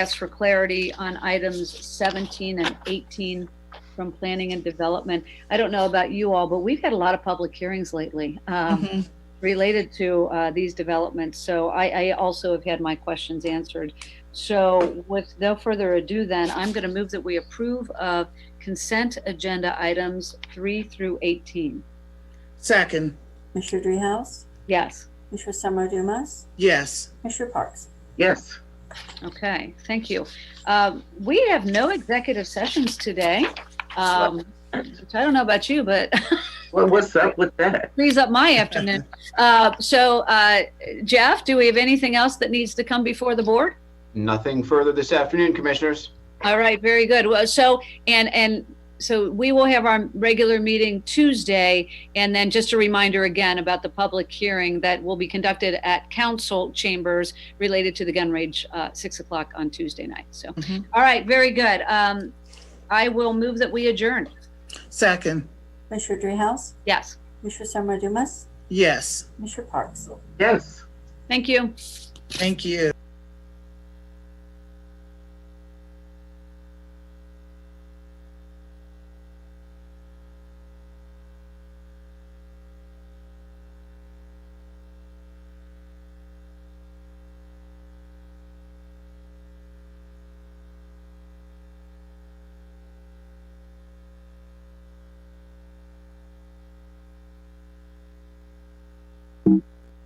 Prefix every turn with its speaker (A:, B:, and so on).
A: ask for clarity on items 17 and 18 from planning and development. I don't know about you all, but we've had a lot of public hearings lately um,
B: Mhm.
A: related to uh, these developments. So I, I also have had my questions answered. So with no further ado, then I'm going to move that we approve of consent agenda items 3 through 18.
B: Second,
C: Commissioner Dreehouse,
A: Yes.
C: Commissioner Summer Dumas,
B: yes.
C: Commissioner Parks.
D: Yes,
A: Okay, thank you. Um, We have no executive sessions today. Um, which I don't know about you, but
D: well, what's up with that?
A: frees up my afternoon. Uh, So uh, Jeff, do we have anything else that needs to come before the board?
E: Nothing further this afternoon, Commissioners.
A: All right, very good. Well, so, and, and so we will have our regular meeting Tuesday. And then just a reminder again about the public hearing that will be conducted at council chambers related to the gun rage, uh, six o'clock on Tuesday night. So,
B: Mhm.
A: all right, very good. Um, I will move that we adjourn.
B: Second,
C: Commissioner Dreehouse,
A: Yes,
C: Commissioner Summer Dumas,
B: yes.
C: Commissioner Parks.
D: Yes.
A: thank you.
B: Thank you.